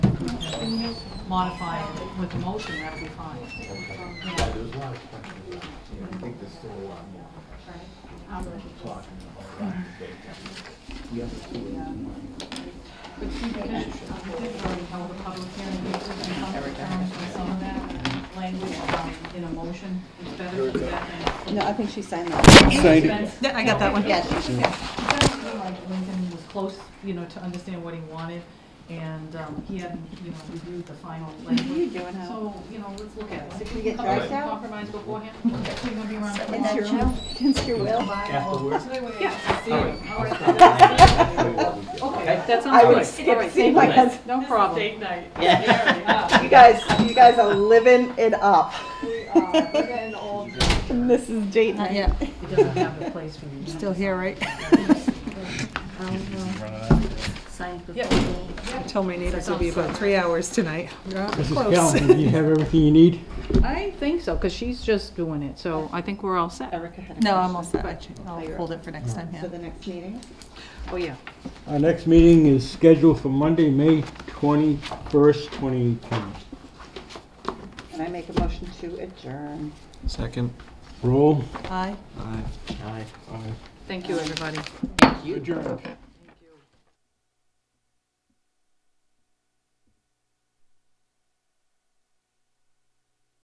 modify it with the motion, that would be fine. Yeah, there's a lot of questions. about it. You know, I think there's still a lot more Um, talking about that debate. The other two is mine. But you did, you did already held a public hearing, you did come to terms with some of that language um, in a motion, it's better to do that than. No, I think she signed that. Signed it. Spence- Yeah, I got that one. Yeah, she- Spence, you know, like Lincoln was close, you know, to understand what he wanted, and um, he hadn't, you know, reviewed the final language. What are you doing, Hal? So, you know, let's look at this. If we get come to drugs some out? Compromise beforehand, if we're gonna be around. for a Against while. your will? Against your will? Afterwards? Yeah. see you. All right. Okay, that sounds I would good. skip seeing my husband. No problem. Date night. Yeah. Yeah. You guys, you guys are living it up. We are, we're getting old. It Mrs. Dayton. Not yet. doesn't have a place for you. Still here, right? Yep. I told my neighbors it'll be about three hours tonight. We're out Mrs. close. Callen, you have everything you need? I think so, because she's just doing it, so I think we're all set. Erica had a No, I'm all question set. I'll hold it for next time, yeah. For the next meeting? Oh, yeah. Our next meeting is scheduled for Monday, May 21st, 2018. Can I make a motion to adjourn? Second. Roll. Aye. Aye. Thank you, everybody. Adjourned.